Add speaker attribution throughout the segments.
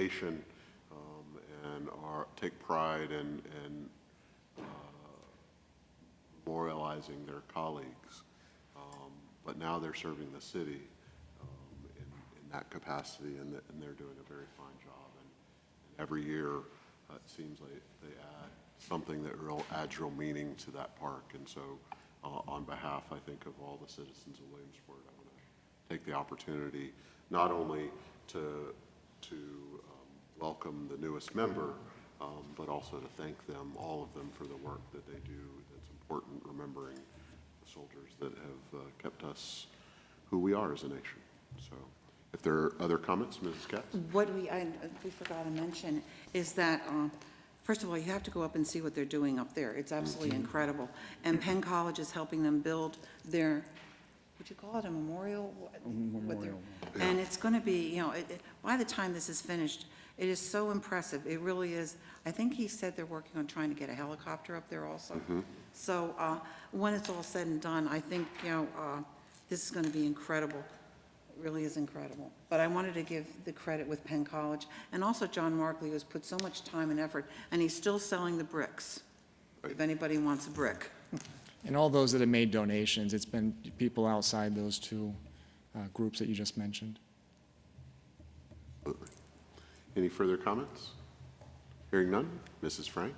Speaker 1: nation um, and are, take pride in, in uh, memorializing their colleagues. Um, But now they're serving the city um, in, in that capacity, and, th- and they're doing a very fine job. And and every year, uh, it seems like they add something that real, adds real meaning to that park. And so uh, on behalf, I think, of all the citizens of Williamsport, I want to take the opportunity not only to, to um, welcome the newest member, um, but also to thank them, all of them, for the work that they do. It's important remembering the soldiers that have uh, kept us who we are as a nation. So if there are other comments, Mrs. Katz?
Speaker 2: What we, I, we forgot to mention is that, um, first of all, you have to go up and see what they're doing up there. It's absolutely incredible. And Penn College is helping them build their, would you call it a memorial? What- what they're- And it's going to be, you know, it- it- by the time this is finished, it is so impressive. It really is. I think he said they're working on trying to get a helicopter up there also. So uh, when it's all said and done, I think, you know, uh, this is going to be incredible. It really is incredible. But I wanted to give the credit with Penn College, and also John Markley, who's put so much time and effort, and he's still selling the bricks, if anybody wants a brick.
Speaker 3: And all those that have made donations, it's been people outside those two uh, groups that you just mentioned.
Speaker 1: Any further comments? Hearing none, Mrs. Frank?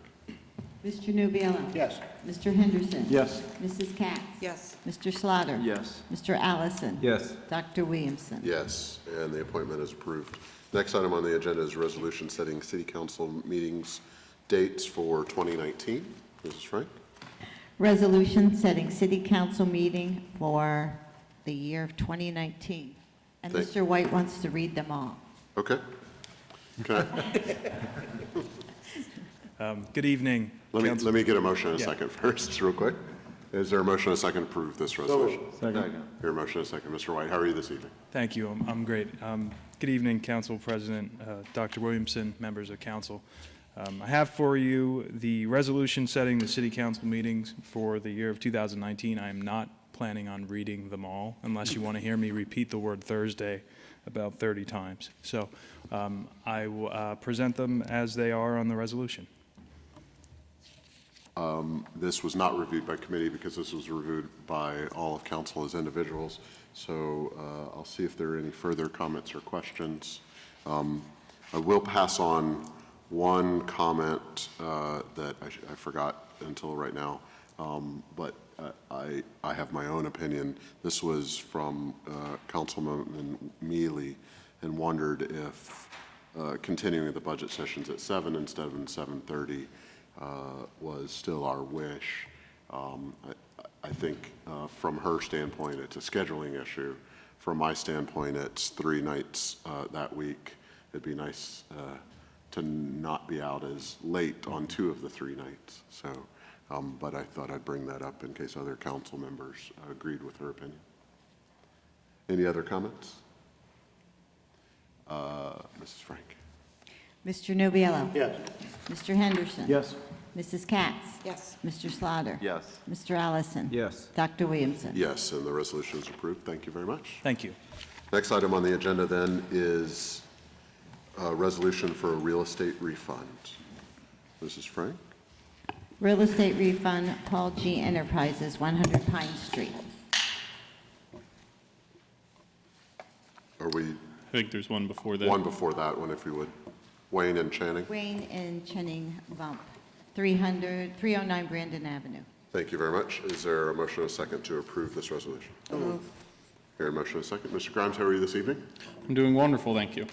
Speaker 4: Mr. Nubiallo.
Speaker 5: Yes.
Speaker 4: Mr. Henderson.
Speaker 5: Yes.
Speaker 4: Mrs. Katz.
Speaker 2: Yes,
Speaker 4: Mr. Slaughter.
Speaker 5: Yes.
Speaker 4: Mr. Allison.
Speaker 5: Yes.
Speaker 4: Dr. Williamson.
Speaker 1: Yes, and the appointment is approved. Next item on the agenda is resolution setting city council meetings dates for 2019. Mrs. Frank?
Speaker 4: Resolution setting city council meeting for the year of 2019. And
Speaker 1: Thank-
Speaker 4: Mr. White wants to read them all.
Speaker 1: Okay. Can I-
Speaker 6: Good evening.
Speaker 1: Let me,
Speaker 6: Council-
Speaker 1: let me get a motion and a
Speaker 6: Yeah.
Speaker 1: second first, real quick. Is there a motion and a second to approve this resolution?
Speaker 5: Second.
Speaker 1: Your motion and a second. Mr. White, how are you this evening?
Speaker 6: Thank you. I'm, I'm great. Um, good evening, Council President, uh, Dr. Williamson, members of council. Um, I have for you the resolution setting the city council meetings for the year of 2019. I am not planning on reading them all unless you want to hear me repeat the word Thursday about 30 times. So um, I will uh, present them as they are on the resolution.
Speaker 1: This was not reviewed by committee because this was reviewed by all of council as individuals. So uh, I'll see if there are any further comments or questions. Um, I will pass on one comment uh, that I sh- I forgot until right now, Um, but uh, I, I have my own opinion. This was from uh, Councilman Mealy and wondered if uh, continuing the budget sessions at seven instead of in 7:30 uh, was still our wish. Um, I- I think uh, from her standpoint, it's a scheduling issue. From my standpoint, it's three nights uh, that week. It'd be nice uh, to not be out as late on two of the three nights, so, um, but I thought I'd bring that up in case other council members agreed with her opinion. Any other comments? Uh, Mrs. Frank?
Speaker 4: Mr. Nubiallo.
Speaker 5: Yes.
Speaker 4: Mr. Henderson.
Speaker 5: Yes.
Speaker 4: Mrs. Katz.
Speaker 2: yes.
Speaker 4: Mr. Slaughter.
Speaker 5: Yes.
Speaker 4: Mr. Allison.
Speaker 5: Yes.
Speaker 4: Dr. Williamson.
Speaker 1: Yes, and the resolution is approved. Thank you very much.
Speaker 6: Thank you.
Speaker 1: Next item on the agenda then is a resolution for a real estate refund. Mrs. Frank?
Speaker 4: Real estate refund, Paul G. Enterprises, 100 Pine Street.
Speaker 1: Are we
Speaker 7: I think there's one before that.
Speaker 1: one before that one, if you would? Wayne and Channing?
Speaker 4: Wayne and Chenning Bump, 300, 309 Brandon Avenue.
Speaker 1: Thank you very much. Is there a motion and a second to approve this resolution? Here, a motion and a second. Mr. Grimes, how are you this evening?
Speaker 7: I'm doing wonderful, thank you.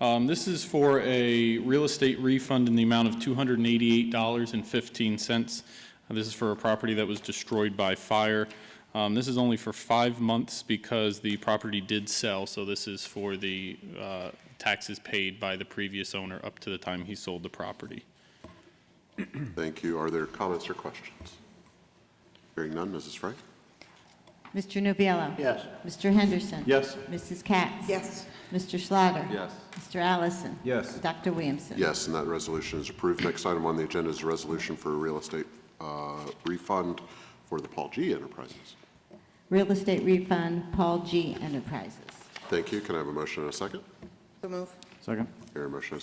Speaker 7: Um, This is for a real estate refund in the amount of $288.15. Uh, This is for a property that was destroyed by fire. Um, This is only for five months because the property did sell, so this is for the uh, taxes paid by the previous owner up to the time he sold the property.
Speaker 1: Thank you. Are there comments or questions? Hearing none, Mrs. Frank?
Speaker 4: Mr. Nubiallo.
Speaker 5: Yes.
Speaker 4: Mr. Henderson.
Speaker 5: Yes.
Speaker 4: Mrs. Katz.
Speaker 2: Yes.
Speaker 4: Mr. Slaughter.
Speaker 5: Yes.
Speaker 4: Mr. Allison.
Speaker 5: Yes.
Speaker 4: Dr. Williamson.
Speaker 1: Yes, and that resolution is approved. Next item on the agenda is a resolution for a real estate uh, refund for the Paul G. Enterprises.
Speaker 4: Real estate refund, Paul G. Enterprises.
Speaker 1: Thank you. Can I have a motion and a second?
Speaker 2: So move.
Speaker 5: Second.
Speaker 1: Here, a motion and a